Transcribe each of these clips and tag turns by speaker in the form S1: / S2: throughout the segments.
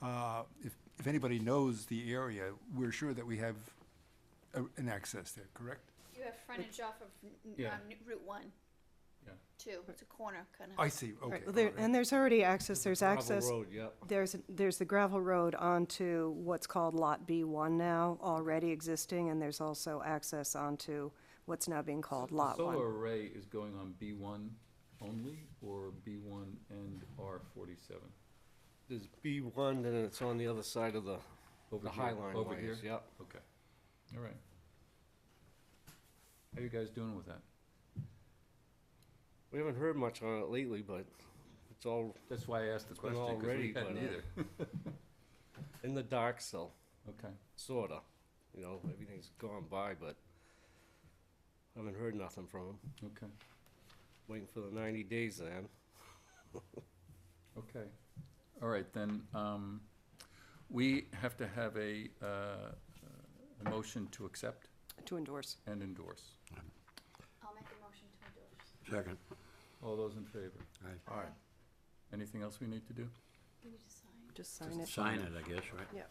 S1: uh, if, if anybody knows the area, we're sure that we have a- an access there, correct?
S2: You have frontage off of n- n-
S3: Yeah.
S2: um, Route One.
S3: Yeah.
S2: Two, it's a corner, kind of.
S1: I see, okay.
S4: Right, there-
S1: all right.
S4: And there's already access, there's
S3: Gravel
S4: access,
S3: Road, yep.
S4: there's, there's the gravel road onto what's called Lot B1 now, already existing, and there's also access onto what's now being called Lot
S3: The
S4: 1.
S3: Solar array is going on B one only, or B one and R forty-seven?
S5: There's B one, then it's on the other side of the,
S3: Over
S5: the
S3: here,
S5: high line
S3: over
S5: wires,
S3: here?
S5: yep.
S3: Okay, all right. How you guys doing with that?
S5: We haven't heard much on it lately, but it's all
S3: That's why I asked the
S5: been
S3: question,
S5: all
S3: because we
S5: ready,
S3: hadn't
S5: but, uh,
S3: either.
S5: in the dark still,
S3: Okay,
S5: sorta. You know, everything's gone by, but haven't heard nothing from them.
S3: okay,
S5: Waiting for the ninety days then.
S3: okay. All right, then, um, we have to have a, uh, a motion to accept
S4: To endorse.
S3: and endorse.
S2: I'll make a motion to endorse.
S6: Second.
S3: All those in favor?
S6: Aye.
S3: Anything else we need to do?
S2: We need to sign.
S4: Just sign it.
S6: Sign it, I guess, right?
S4: Yeah,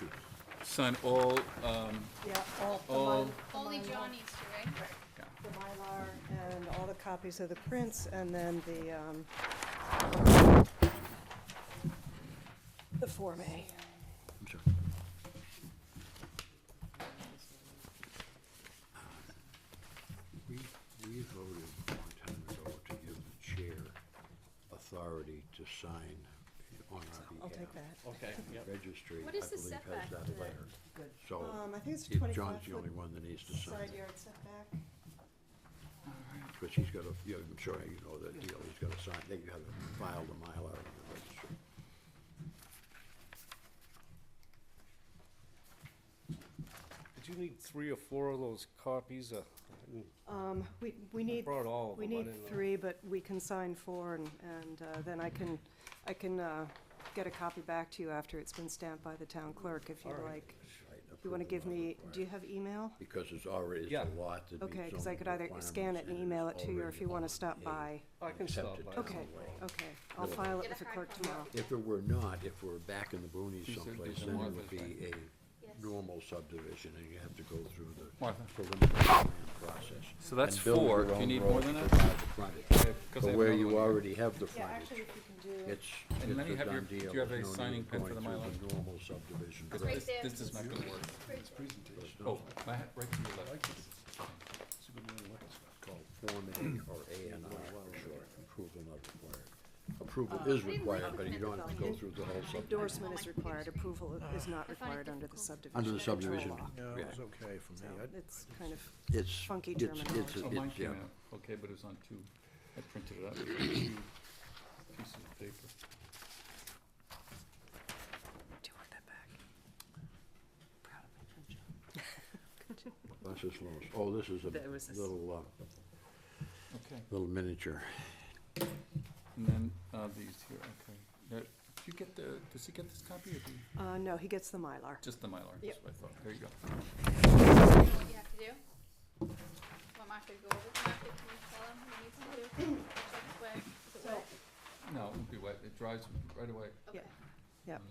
S6: Shoot.
S3: Sign all, um,
S4: yeah, all, the
S3: All-
S4: Mylar- the
S2: Only
S4: Mylar-
S2: John needs to, right?
S4: The Mylar and all the copies of the prints, and then the, um, the Form A.
S6: I'm sorry. We, we voted a long time ago to give the chair authority to sign on our
S4: I'll take
S6: behalf.
S4: that.
S5: Okay, yep.
S6: Registry, I
S2: What is
S6: believe,
S2: the
S6: has
S2: setback
S6: that
S2: to that?
S6: letter. So
S4: Um, I think it's
S6: Oh. if
S4: 25
S6: John's the
S4: foot
S6: only one that needs to sign
S4: Side
S6: it,
S4: yard setback.
S6: because he's got a, yeah, I'm sure you know that deal, he's got to sign, they got to file the Mylar in the registry.
S5: Did you need three or four of those copies? Uh, I didn't-
S4: Um, we, we
S5: I
S4: need,
S5: brought all of
S4: we
S5: them. I
S4: need
S5: didn't know.
S4: three, but we can sign four and, and, uh, then I can, I can, uh, get a copy back to you after it's been stamped by the town clerk if you'd
S5: All right.
S4: like.
S6: Right,
S4: You wanna give
S6: approval not
S4: me, do you
S6: required.
S4: have email?
S6: Because it's already, it's
S5: Yeah.
S6: a lot that meets
S4: Okay, cause I
S6: zoning
S4: could either scan it
S6: requirements
S4: and
S6: it's
S4: email it to you, or if you wanna
S6: already
S4: stop
S6: on a-
S4: by.
S5: I can stop
S6: accepted
S5: by.
S6: by
S4: Okay,
S6: the way.
S4: okay, I'll
S6: Yeah.
S4: file it
S2: Get a
S4: with the
S2: hard
S4: clerk
S2: copy.
S4: tomorrow.
S6: If it were not, if we're back in the boonies
S3: These are-
S6: someplace,
S3: these are
S6: then it
S3: Martha's,
S6: would be
S2: Yes.
S6: a normal subdivision, and you have to go through the
S3: Martha.
S6: preliminary plan process.
S3: So that's
S6: And build
S3: four.
S6: your
S3: Do you
S6: own
S3: need
S6: road
S3: more than
S6: to
S3: that?
S6: provide the frontage.
S3: because I
S6: But
S3: have
S6: where
S3: another one
S6: you
S3: here.
S6: already have the
S4: Yeah, actually,
S6: frontage,
S4: if you can do it.
S6: it's,
S3: And
S6: it's
S3: then you
S6: a
S3: have your- do
S6: done deal,
S3: you have
S6: there's
S3: a
S6: no
S3: signing
S6: need
S3: pen for
S6: going
S3: the
S6: through
S3: Mylar?
S6: Normal subdivision.
S2: It's
S6: process.
S2: right there.
S3: This is not gonna work.
S2: Right there.
S6: It's
S3: Oh,
S6: not
S3: my, hat right to your left.
S6: called Form A or A and
S4: Oh,
S6: R for short, approval not required.
S4: Uh,
S6: Approval is required, but you don't have to go through the whole subdivision.
S4: Endorsement is required, approval is not required under the subdivision.
S6: Under the
S4: control
S6: subdivision,
S4: law.
S6: yeah,
S5: okay for
S4: So it's kind of,
S6: it's,
S4: Funky
S6: it's, it's,
S4: terminology.
S3: Oh, mine
S6: it's, yeah.
S3: came out. Okay, but it was on two. I printed it out. It was on two pieces of paper.
S4: do you want that back? Proud of my friend, John.
S6: That's just Lois. Oh, this is
S7: That was this.
S6: a little, uh,
S3: Okay.
S6: little miniature.
S3: And then, uh, these here, okay. Now, do you get the, does he get this copy or do you,
S4: Uh, no, he gets the Mylar.
S3: just the Mylar? That's
S4: Yep.
S3: what I thought. There you go.
S2: You know what you have to do? Want Martha to go over, Martha, can you tell him what you need to do? Check it wet. Is it wet?
S3: No, it would be wet. It dries right away.
S2: Okay.
S4: Yep.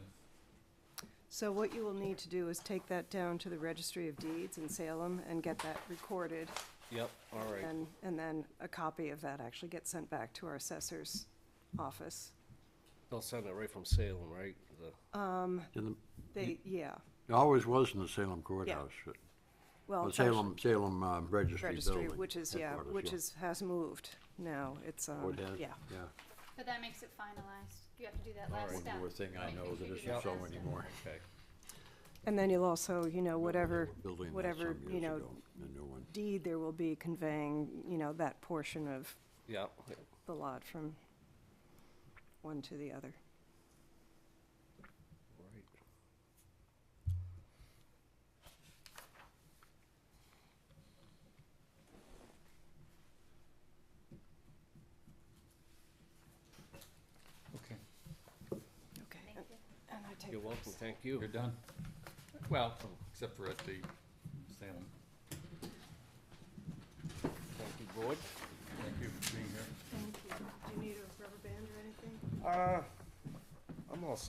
S4: So what you will need to do is take that down to the Registry of Deeds in Salem and get that recorded.
S5: Yep, all right.
S4: And, and then a copy of that actually gets sent back to our assessor's office.
S5: They'll send it right from Salem, right? The-
S6: In the-
S4: They, yeah,
S6: It always was in the Salem courthouse, uh,
S4: well.
S6: well,
S4: it's actually
S6: Salem, Salem um, Registry Building.
S4: Registry, which is, yeah,
S6: headquarters,
S4: which
S6: yeah.
S4: is, has moved now. It's,
S6: Oh,
S4: um,
S6: it has?
S4: yeah.
S6: Yeah.
S2: But that makes it finalized. You have to do that last
S6: One
S2: step.
S6: more thing I
S2: Make-
S6: know
S2: make
S6: that
S2: sure you do
S6: isn't so
S2: last step.
S6: anymore.
S5: Okay.
S4: And then you'll also, you know, whatever,
S6: Building that
S4: whatever,
S6: some
S4: you
S6: years
S4: know,
S6: ago, The new one.
S4: deed there will be conveying, you know, that portion of
S5: Yep,
S4: the lot from one to the other.
S5: right.
S3: Okay,
S4: Okay.
S2: Thank you.
S4: And I take
S5: You're
S4: those.
S5: welcome, thank you.
S3: you're done. Well, except for at the Salem.
S5: Thank you, board.
S3: Thank you for being here.
S4: Thank you. Do you need a rubber band or anything?
S5: Uh, I'm all